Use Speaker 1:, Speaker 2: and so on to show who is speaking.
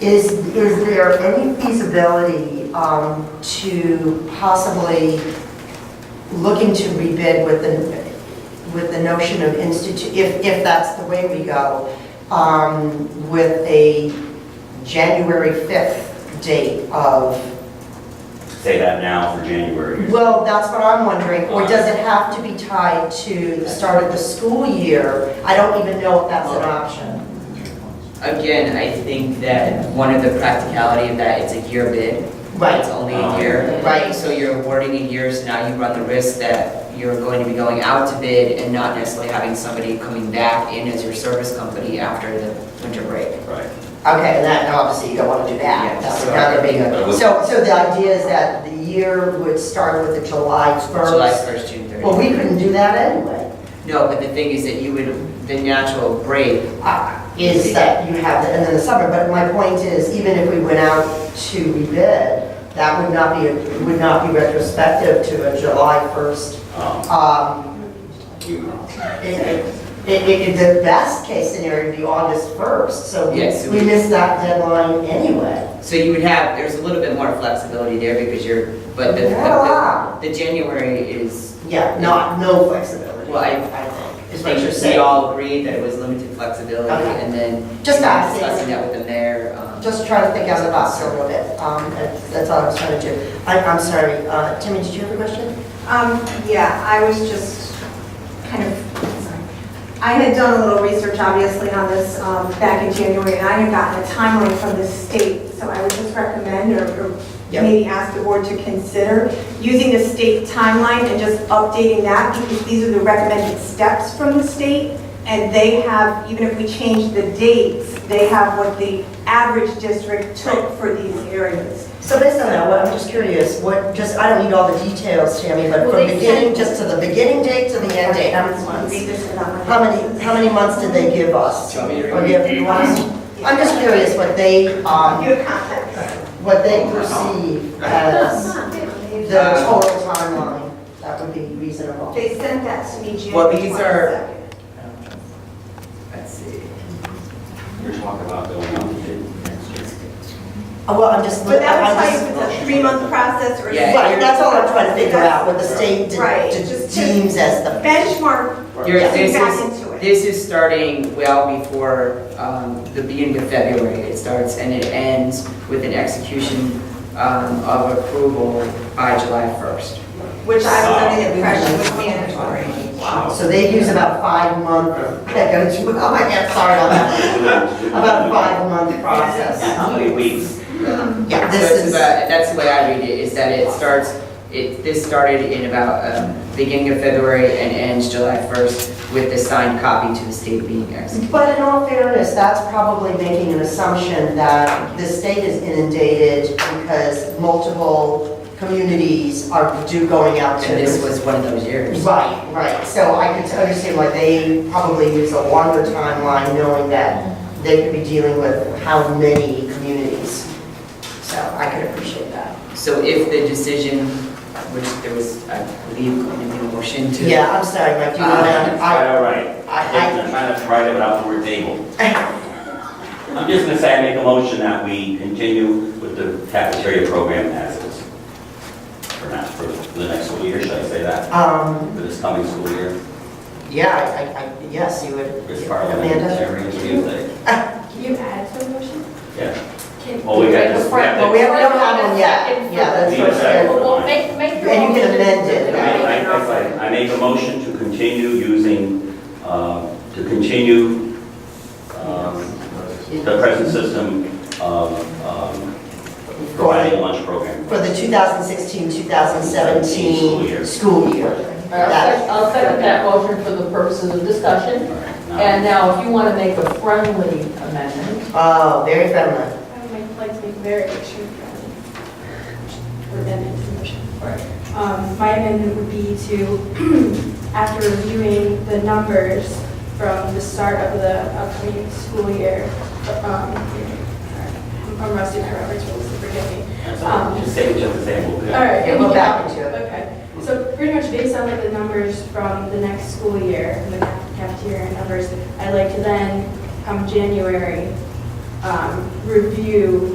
Speaker 1: Is, is there any feasibility um, to possibly looking to rebid with the, with the notion of institute, if, if that's the way we go, um, with a January 5th date of
Speaker 2: Say that now for January.
Speaker 1: well, that's what I'm wondering, or does it have to be tied to the start of the school year? I don't even know if that's an option.
Speaker 3: Again, I think that one of the practicality of that, it's a year bid. It's only a year.
Speaker 1: Right.
Speaker 3: So you're awarding in years, now you run the risk that you're going to be going out to bid and not necessarily having somebody coming back in as your service company after the winter break.
Speaker 2: Right.
Speaker 1: Okay, and that, and obviously you don't want to do that,
Speaker 3: Yeah,
Speaker 1: that's
Speaker 3: so-
Speaker 1: another big,
Speaker 2: But it was-
Speaker 1: so, so the idea is that the year would start with the July
Speaker 3: July
Speaker 1: 1st?
Speaker 3: 1st, June 30th.
Speaker 1: Well, we couldn't do that anyway,
Speaker 3: No, but the thing is that you would, the natural break
Speaker 1: Uh, is that you have, the and then the summer, but my point is, even if we went out to rebid, that would not be, would not be retrospective to a July 1st,
Speaker 2: Um,
Speaker 1: um,
Speaker 2: you-
Speaker 1: It, it, it- the best case scenario would be August 1st, so
Speaker 3: Yes.
Speaker 1: we missed that deadline anyway.
Speaker 3: So you would have, there's a little bit more flexibility there because you're, but the,
Speaker 1: Not a lot.
Speaker 3: the, the January is,
Speaker 1: Yeah, not, no flexibility.
Speaker 3: Well, I-
Speaker 1: think,
Speaker 3: I
Speaker 1: is what you're
Speaker 3: think we
Speaker 1: saying.
Speaker 3: all agreed that it was limited flexibility
Speaker 1: Okay.
Speaker 3: and then.
Speaker 1: Just that.
Speaker 3: Discussing that with the mayor. um,
Speaker 1: Just trying to think out of the box a little bit, um, that's that's all I was trying to do. I, I'm sorry, uh, Timmy, did you have a question?
Speaker 4: Um, yeah, I was just kind of, sorry. I had done a little research, obviously, on this um, back in January, and I had gotten a timeline from the state, so I would just recommend or or
Speaker 1: Yep.
Speaker 4: maybe ask the board to consider using the state timeline and just updating that, because these are the recommended steps from the state, and they have, even if we change the dates, they have what the average district took for these areas.
Speaker 1: So based on that, what, I'm just curious, what, just, I don't need all the details, Tammy, but
Speaker 4: Well,
Speaker 1: from
Speaker 4: they
Speaker 1: beginning,
Speaker 4: said-
Speaker 1: just to the beginning date to the end date, how many months?
Speaker 4: Read this and I'm-
Speaker 1: How many, how many months did they give us?
Speaker 3: Do you want me to
Speaker 1: Or do you have- you want us- I'm just curious what they, um,
Speaker 4: Your comments.
Speaker 1: what they perceive as the total timeline, that would be reasonable.
Speaker 4: They sent that to me June
Speaker 3: Well, these are-
Speaker 4: 22nd.
Speaker 3: Let's see.
Speaker 2: You're talking about going out to bid next year.
Speaker 1: Uh, Well, I'm just,
Speaker 4: But that would
Speaker 1: I'm
Speaker 4: tell you
Speaker 1: just,
Speaker 4: if it's a three-month process or.
Speaker 3: Yeah.
Speaker 1: right, that's all I'm trying to figure out, what the state de-
Speaker 4: Right,
Speaker 1: de-
Speaker 4: just to-
Speaker 1: deems as the.
Speaker 4: Benchmark,
Speaker 3: Your-
Speaker 4: Yeah.
Speaker 3: this
Speaker 4: Back
Speaker 3: is-
Speaker 4: into it.
Speaker 3: This is starting well before um, the beginning of February. It starts and it ends with an execution um, of approval by July 1st.
Speaker 4: which I was under the impression was mandatory.
Speaker 2: Wow.
Speaker 1: So they use about five month, that goes, oh my God, sorry about that. About a five month process.
Speaker 2: How many weeks?
Speaker 1: Yeah,
Speaker 3: So
Speaker 1: this
Speaker 3: it's
Speaker 1: is,
Speaker 3: about- That's the way I read it, is that it starts, it, this started in about um, beginning of February and ends July 1st with the signed copy to the state being executed.
Speaker 1: but in all fairness, that's probably making an assumption that the state is inundated because multiple communities are, do going out to.
Speaker 3: And this was one of those years.
Speaker 1: Right, right, so I could understand why they probably use a longer timeline, knowing that they could be dealing with how many communities. So I could appreciate that.
Speaker 3: So if the decision, which there was, I believe, going to be a motion to.
Speaker 1: Yeah, I'm sorry, Mike, do you want to?
Speaker 2: Quite all right.
Speaker 1: I,
Speaker 2: I'm trying to write it out for a table. I'm just gonna say I make a motion that we continue with the cafeteria program as is. For now, for the next school year, should I say
Speaker 1: I,
Speaker 2: that?
Speaker 1: um,
Speaker 2: For this coming school year,
Speaker 1: yeah, I- I, I, yes, you would.
Speaker 2: this
Speaker 1: Amanda?
Speaker 2: parliamentary Tuesday.
Speaker 5: Can you add to the motion?
Speaker 2: Yeah,
Speaker 5: Can-
Speaker 2: Well, Oh, we got this-
Speaker 5: The front-
Speaker 1: Well, we haven't done that one yet.
Speaker 5: Second
Speaker 1: Yeah, that's
Speaker 5: for-
Speaker 1: what I said.
Speaker 5: Well, well, make, make your.
Speaker 1: And you can
Speaker 5: motion.
Speaker 1: amend it,
Speaker 2: I, I, I- I make a motion to continue using, uh, to continue, um, the present system of, um, providing a lunch program.
Speaker 1: For the 2016-2017
Speaker 2: School year.
Speaker 1: school year.
Speaker 6: I'll
Speaker 1: That-
Speaker 6: sec- I'll second that motion for the purposes of discussion. And
Speaker 2: And
Speaker 6: now, if you want to make a friendly amendment,
Speaker 1: Oh, very friendly.
Speaker 5: I would make- like to make very issue friendly. Or then it's the motion. Um, My amendment would be to, after reviewing the numbers from the start of the upcoming school year, um, I'm rusty, my Robert's rules, forgive me.
Speaker 2: now, just say just the same, we'll be-
Speaker 5: All right.
Speaker 1: Yeah, we'll back into it.
Speaker 5: Okay, so pretty much based on the numbers from the next school year, and the cafeteria numbers, I'd like to then, come January, um, review